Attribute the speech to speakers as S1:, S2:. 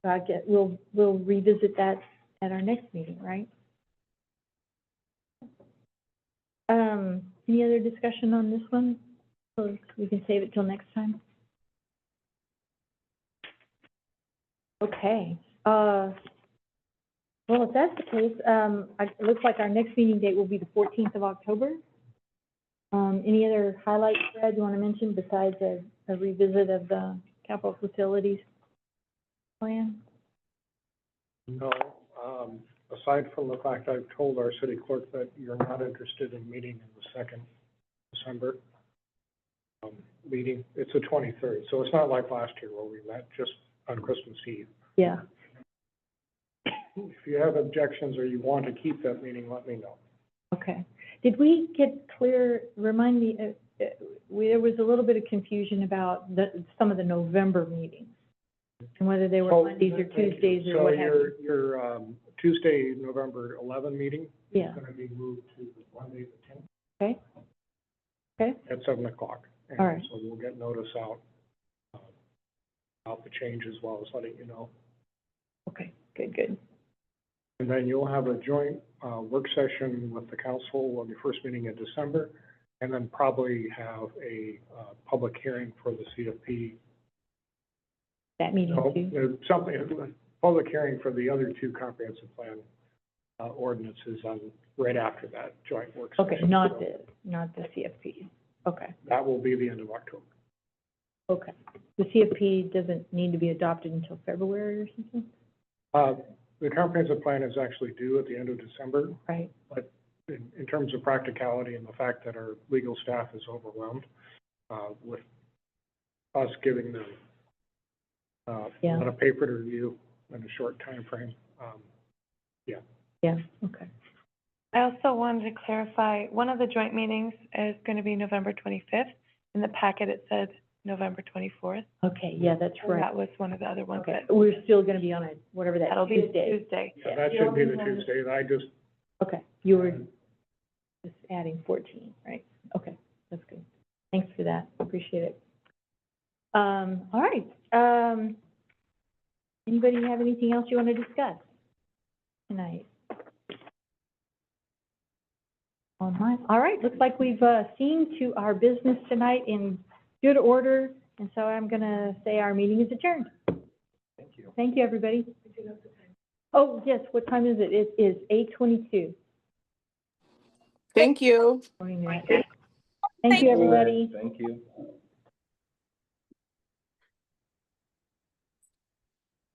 S1: So I uh, get, we'll, we'll revisit that at our next meeting, right? Um, any other discussion on this one? Or we can save it till next time? Okay, uh, well, if that's the case, um, I- it looks like our next meeting date will be the fourteenth of October. Um, any other highlights, Brad, you want to mention besides a, a revisit of the capital facilities plan?
S2: No, um, aside from the fact I've told our city clerk that you're not interested in meeting in the second December um, meeting, it's the twenty-third, so it's not like last year where we met just on Christmas Eve.
S1: Yeah,
S2: If you have objections or you want to keep that meeting, let me know.
S1: okay. Did we get clear, remind me, uh, uh, we- there was a little bit of confusion about the, some of the November meetings and whether they were
S2: So-
S1: Mondays or
S2: thank you.
S1: Tuesdays or what have you.
S2: Oh, So your, your um, Tuesday, November eleven meeting
S1: Yeah,
S2: is going to be moved to the Monday, the tenth.
S1: Okay. Okay.
S2: At seven o'clock. And
S1: All right.
S2: So we'll get notice out uh, about the change as well as letting you know.
S1: okay, good, good.
S2: And then you'll have a joint uh, work session with the council on your first meeting in December, and then probably have a uh, public hearing for the CFP.
S1: That meeting
S2: No,
S1: too?
S2: there's uh, Something, a public hearing for the other two comprehensive plan uh, ordinances on, right after that joint work session.
S1: Okay, not
S2: So
S1: the, not the CFP. Okay,
S2: That will be the end of October.
S1: okay. The CFP doesn't need to be adopted until February or something,
S2: Uh, The comprehensive plan is actually due at the end of December,
S1: right?
S2: in, in terms of practicality and the fact that our legal staff is overwhelmed, uh, with us giving them, uh, a
S1: Yeah.
S2: lot of paper to review in a short timeframe, um,
S1: Yeah, okay.
S3: I also wanted to clarify, one of the joint meetings is going to be November 25th. In the packet, it said November 24th.
S1: Okay, yeah, that's
S3: and
S1: right.
S3: That was one of the other ones,
S1: Okay,
S3: but
S1: we're still gonna be on a, whatever that
S3: that'll be
S1: Tuesday.
S3: Tuesday.
S2: yeah, that should be the Tuesday, and I just,
S1: Okay, you were just adding fourteen, right? Okay, that's good. Thanks for that, appreciate it. Um, all right, um, anybody have anything else you wanna discuss tonight? All right, all right, looks like we've, uh, seen to our business tonight in good order, and so I'm gonna say our meeting is adjourned.
S2: thank you.
S1: Thank you, everybody. Oh, yes, what time is it? It is eight twenty-two.
S4: Thank you.
S1: Thank you, everybody.
S5: Thank you.